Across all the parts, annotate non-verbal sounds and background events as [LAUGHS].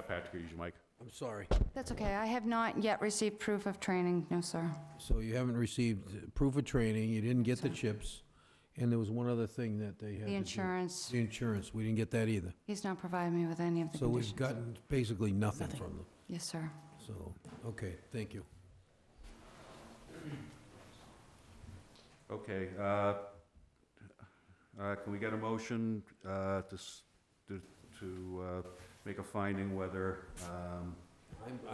back to you, Mike. I'm sorry. That's okay. I have not yet received proof of training, no, sir. So you haven't received proof of training, you didn't get the chips, and there was one other thing that they had to The do. insurance, The insurance, we didn't get that either. he's not provided me with any of the So conditions. we've gotten basically nothing from them, Yes, sir. so, okay, thank you. Okay, uh, uh, can we get a motion uh, to, s- to, to uh, make a finding whether um,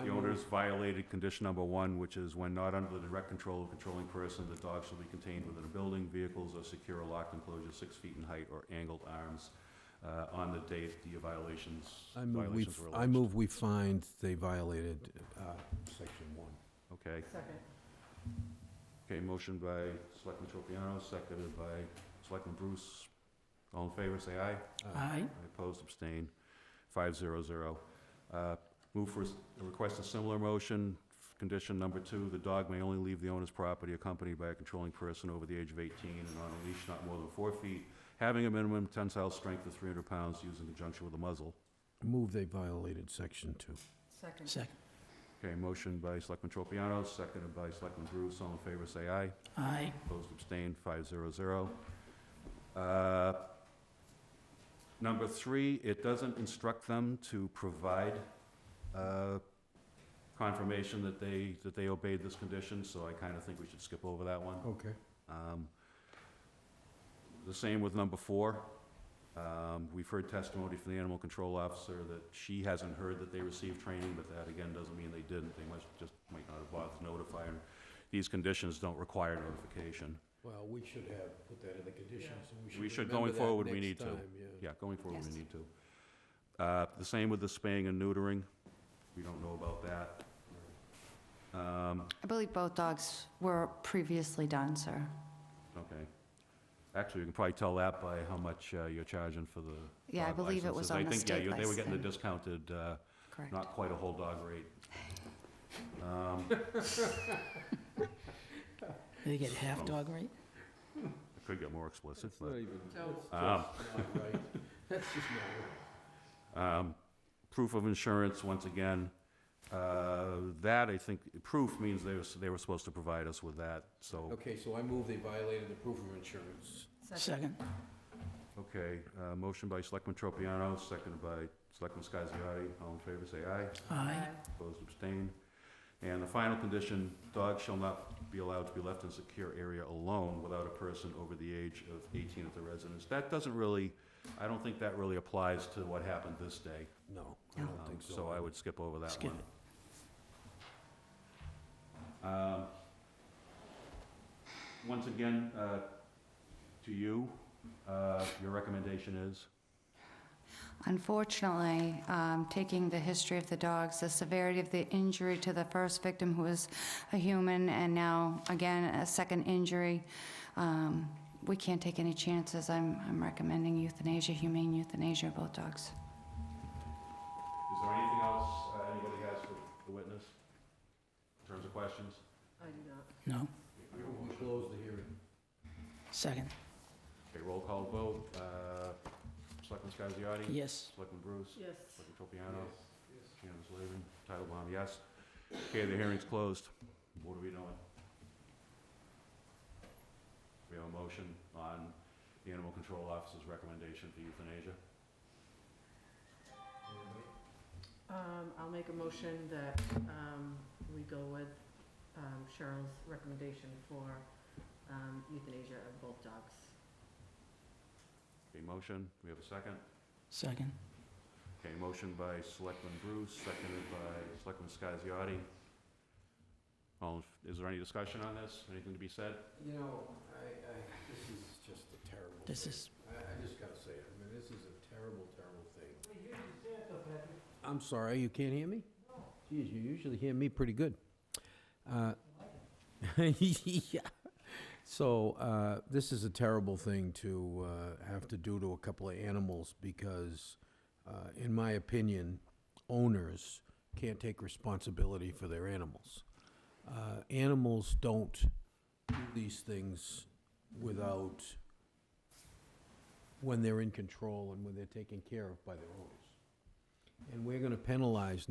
the owners violated condition number one, which is when not under the direct control of controlling person, the dog shall be contained within a building, vehicles or secure or locked enclosure six feet in height or angled arms uh, on the date the violations, I move we, violations were I alleged. move we find they violated, uh, section one. Okay. Okay, motion by Selectman Tropiano, seconded by Selectman Bruce. All in favor, say aye. Aye. Aye, Opposed, abstain, five zero zero. Uh, Move for, s- request a similar motion, condition number two, the dog may only leave the owner's property accompanied by a controlling person over the age of eighteen and on a leash not more than four feet, having a minimum tensile strength of three hundred pounds used in conjunction with a muzzle. Move they violated section two. Second. Second. Okay, motion by Selectman Tropiano, seconded by Selectman Bruce. All in favor, say aye. Aye. Opposed, abstained, five zero zero. Uh, Number three, it doesn't instruct them to provide uh, confirmation that they, that they obeyed this condition, so I kind of think we should skip over that one. Okay. Um, The same with number four. Um, We've heard testimony from the animal control officer that she hasn't heard that they received training, but that again doesn't mean they didn't. They must, just might not have bothered to notify her. These conditions don't require notification. Well, we should have put that in the conditions, and We we should should, going remember that forward, we next need to. time, yeah. Yeah, going forward, we Yes. need to. Uh, The same with the spaying and neutering. We don't know about that. Um, I believe both dogs were previously done, sir. Okay. Actually, you can probably tell that by how much uh, you're charging for the Yeah, I dog believe it licenses. was I on the think, yeah, state you- They were getting the license. discounted, uh, Correct. not quite a whole dog rate. Um, Did they get half dog rate? I could get more explicit, It's not but. even, it's Um, just not right. That's just not right. Um, Proof of insurance, once again, uh, that I think, proof means they were, they were supposed to provide us with that, so. Okay, so I move they violated the proof of insurance. Second. Okay, uh, motion by Selectman Tropiano, seconded by Selectman Scasiotti. All in favor, say aye. Aye. Opposed, abstained. And the final condition, dogs shall not be allowed to be left in a secure area alone without a person over the age of 18 at the residence. That doesn't really, I don't think that really applies to what happened this day. No, I don't Um, think so. So I would skip over that Skip one. Um, Once again, uh, to you, uh, your recommendation is? Unfortunately, um, taking the history of the dogs, the severity of the injury to the first victim, who was a human, and now, again, a second injury, um, we can't take any chances. I'm I'm recommending euthanasia, humane euthanasia of both dogs. Is there anything else uh, anybody has for the witness in terms of questions? No. We close the hearing. Second. Okay, roll call vote. uh, Selectman Scasiotti? Yes. Selectman Bruce? Yes. Selectman Tropiano? Chairman Slavin? Titlebaum, yes. Okay, the hearing's closed. What are we doing? We have a motion on the Animal Control Officer's recommendation for euthanasia. Um, I'll make a motion that, um, we go with, um, Cheryl's recommendation for, um, euthanasia of both dogs. Okay, motion, we have a second. Second. Okay, motion by Selectman Bruce, seconded by Selectman Scasiotti. All, in- is there any discussion on this? Anything to be said? You know, I, I, this is just a terrible. This thing. is- I, I just gotta say it, I mean, this is a terrible, terrible thing. I'm sorry, you can't hear me? Geez, you usually hear me pretty good. Uh, [LAUGHS] Yeah. So, uh, this is a terrible thing to, uh, have to do to a couple of animals because, uh, in my opinion, owners can't take responsibility for their animals. Uh, animals don't do these things without, when they're in control and when they're taken care of by their owners. And we're gonna penalize